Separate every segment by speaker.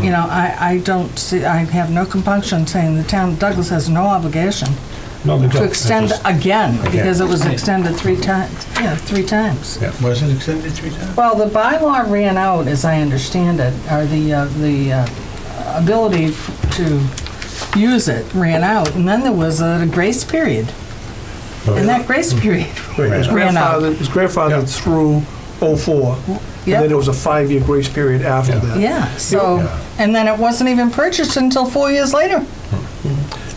Speaker 1: you know, I, I don't see, I have no compunction saying the town of Douglas has no obligation
Speaker 2: No, they don't.
Speaker 1: to extend again, because it was
Speaker 2: Again.
Speaker 1: extended three times, yeah, three times.
Speaker 3: Was it extended three times?
Speaker 1: Well, the bylaw ran out, as I understand it, or the, uh, the uh, ability f- to use it ran out, and then there was a grace period.
Speaker 4: Oh,
Speaker 1: And that grace period,
Speaker 5: His
Speaker 1: Ran out.
Speaker 5: grandfather, his grandfather
Speaker 2: Yeah.
Speaker 5: through '04, and then
Speaker 1: yeah,
Speaker 5: there was a five-year grace period after
Speaker 2: Yeah.
Speaker 5: that.
Speaker 1: yeah, so, and then it wasn't even purchased until four years later.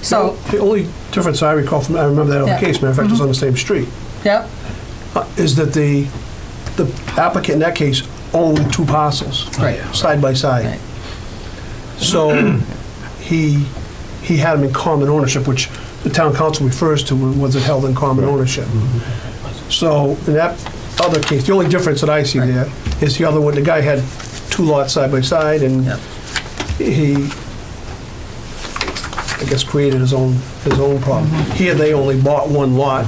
Speaker 1: So,
Speaker 5: The only difference I recall from, I remember that
Speaker 1: Yeah.
Speaker 5: other case, matter of fact, it's on the same street,
Speaker 1: yep,
Speaker 5: uh, is that the, the applicant in that case owned two parcels.
Speaker 1: Right.
Speaker 5: Side by
Speaker 1: Right.
Speaker 5: side. So he, he had them in common ownership, which the town council refers to was it held in common ownership. So in that other case, the only difference that I see
Speaker 1: Right.
Speaker 5: there is the other one, the guy had two lots side by side and
Speaker 1: Yep.
Speaker 5: he, I guess, created his own, his own problem. Here, they only bought one lot,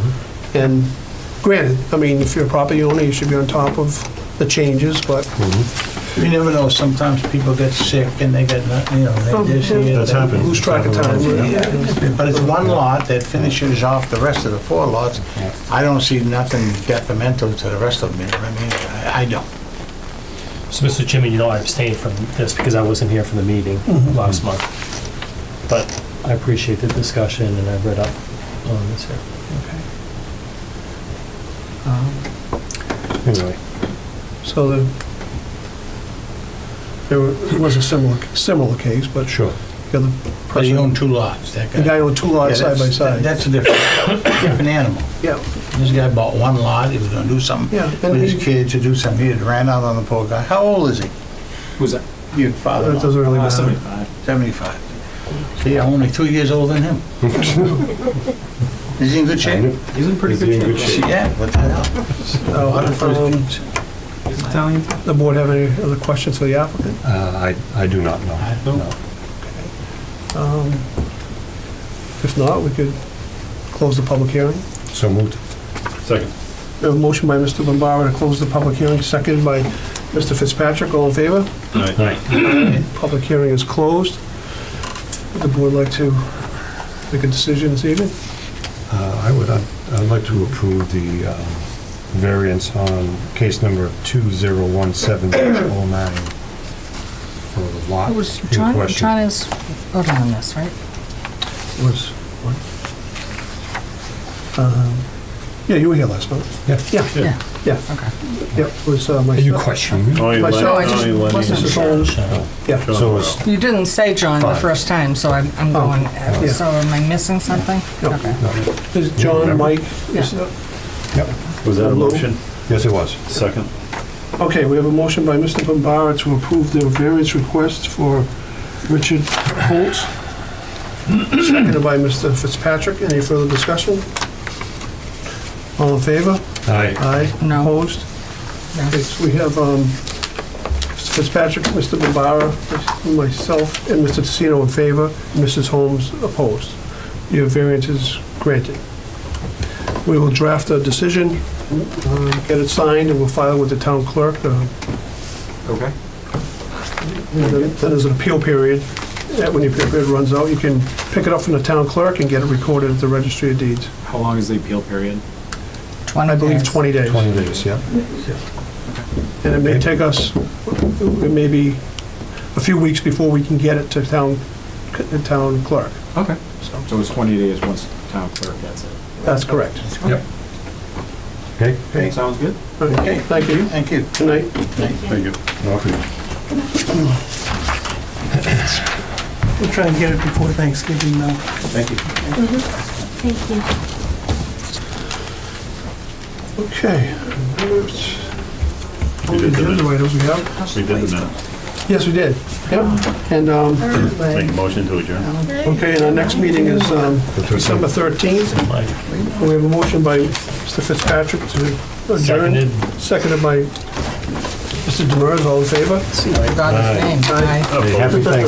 Speaker 5: and granted, I mean, if you're a property owner, you should be on top of the changes, but
Speaker 3: You never know, sometimes people get sick and they get, not- you know, they just... they-
Speaker 2: That's happened.
Speaker 5: lose track of time.
Speaker 3: Oh, Yeah, But it's one lot that finishes off the rest of the four lots. I don't see nothing detrimental to the rest of them, you know what I mean? I- I don't.
Speaker 4: So, Mr. Chairman, you know, I abstained from this because I wasn't here for the meeting
Speaker 1: Mm-hmm.
Speaker 4: last month. But I appreciate the discussion and I've read up on this here. Um, Anyway,
Speaker 5: So the, there wa- it was a similar, similar case, but
Speaker 2: Sure.
Speaker 5: the other
Speaker 3: But you
Speaker 5: person,
Speaker 3: own two lots, that guy.
Speaker 5: the guy owned two
Speaker 3: Yeah,
Speaker 5: lots side by
Speaker 3: that's-
Speaker 5: side.
Speaker 3: That's a different, different animal.
Speaker 5: Yeah,
Speaker 3: This guy bought one lot, he was gonna do something
Speaker 5: Yeah, and
Speaker 3: with his
Speaker 5: he-
Speaker 3: kid to do something, he had ran out on the poor guy. How old is he?
Speaker 6: Who's that?
Speaker 3: Your father?
Speaker 5: that doesn't really
Speaker 6: Uh,
Speaker 5: matter.
Speaker 6: 75.
Speaker 3: 75. See, I'm only two years older than him. Is he in good shape?
Speaker 6: He's in pretty
Speaker 2: Is he in
Speaker 6: good
Speaker 2: good
Speaker 6: shape.
Speaker 2: shape?
Speaker 3: Yeah, what the hell?
Speaker 5: Uh,
Speaker 3: What a first
Speaker 5: um,
Speaker 3: kids.
Speaker 6: He's Italian.
Speaker 5: The board have any other questions for the applicant?
Speaker 2: Uh, I, I do not know.
Speaker 3: I don't.
Speaker 2: No.
Speaker 5: Um, If not, we could close the public hearing.
Speaker 2: So moved.
Speaker 6: Second.
Speaker 5: We have a motion by Mr. Bombara to close the public hearing, seconded by Mr. Fitzpatrick. All in favor? Public hearing is closed. Would the board like to make a decision this evening?
Speaker 2: Uh, I would, I'd I'd like to approve the um, variance on case number 2017-09 for the lot
Speaker 1: it was
Speaker 2: in
Speaker 1: China,
Speaker 2: question.
Speaker 1: China's voting on this, right?
Speaker 5: Was, what? Um, Yeah, you were here last month.
Speaker 2: Yeah.
Speaker 5: Yeah,
Speaker 1: Yeah,
Speaker 5: yeah,
Speaker 1: okay.
Speaker 5: yeah, it was uh,
Speaker 2: Are you
Speaker 5: myself.
Speaker 2: questioning me?
Speaker 5: Myself,
Speaker 1: I just wasn't
Speaker 5: Mrs.
Speaker 1: sure.
Speaker 5: Holmes, yeah.
Speaker 2: So it's,
Speaker 1: You didn't say John the
Speaker 2: Five.
Speaker 1: first time, so I'm, I'm
Speaker 5: Oh,
Speaker 1: going,
Speaker 5: yeah.
Speaker 1: so am I missing something?
Speaker 5: No.
Speaker 1: Okay.
Speaker 5: There's John, Mike. is- uh,
Speaker 6: Was that a
Speaker 5: Hello?
Speaker 6: motion?
Speaker 2: yes, it was.
Speaker 6: Second.
Speaker 5: Okay, we have a motion by Mr. Bombara to approve the variance request for Richard Holtz, seconded by Mr. Fitzpatrick. Any further discussion? All in favor?
Speaker 2: Aye.
Speaker 5: Aye.
Speaker 1: No.
Speaker 5: Opposed?
Speaker 1: No.
Speaker 5: Okay, so we have um, Mr. Fitzpatrick, Mr. Bombara, myself, and Mr. Tassino in favor, and Mrs. Holmes opposed. Your variance is granted. We will draft a decision, uh, get it signed, and we'll file it with the town clerk. uh,
Speaker 6: Okay.
Speaker 5: and Then then there's an appeal period. Uh, When the appeal period runs out, you can pick it up from the town clerk and get it recorded at the registry of deeds.
Speaker 6: How long is the appeal period?
Speaker 5: I believe
Speaker 1: 20
Speaker 5: 20 days.
Speaker 2: 20 days, yeah.
Speaker 5: And it may take us, it may be a few weeks before we can get it to town, the town clerk.
Speaker 6: Okay.
Speaker 5: So
Speaker 6: So it's 20 days once the town clerk gets it.
Speaker 5: That's correct.
Speaker 2: Yep. Okay?
Speaker 5: Okay.
Speaker 6: Sounds good?
Speaker 5: Okay, thank you.
Speaker 3: Thank you.
Speaker 5: Good night.
Speaker 6: Thank you.
Speaker 7: We'll try and get it before Thanksgiving, though.
Speaker 6: Thank you.
Speaker 8: Thank you.
Speaker 5: Okay. We did the items we have.
Speaker 9: We did the minutes.
Speaker 5: Yes, we did. Yep. And, um,
Speaker 9: Make a motion to adjourn.
Speaker 5: okay, and our next meeting is um, December 13th. We have a motion by Mr. Fitzpatrick to adjourn.
Speaker 4: Seconded.
Speaker 5: Seconded by Mr. Demers, all in favor?
Speaker 1: I forgot his name. Aye.
Speaker 2: Happy Thanksgiving.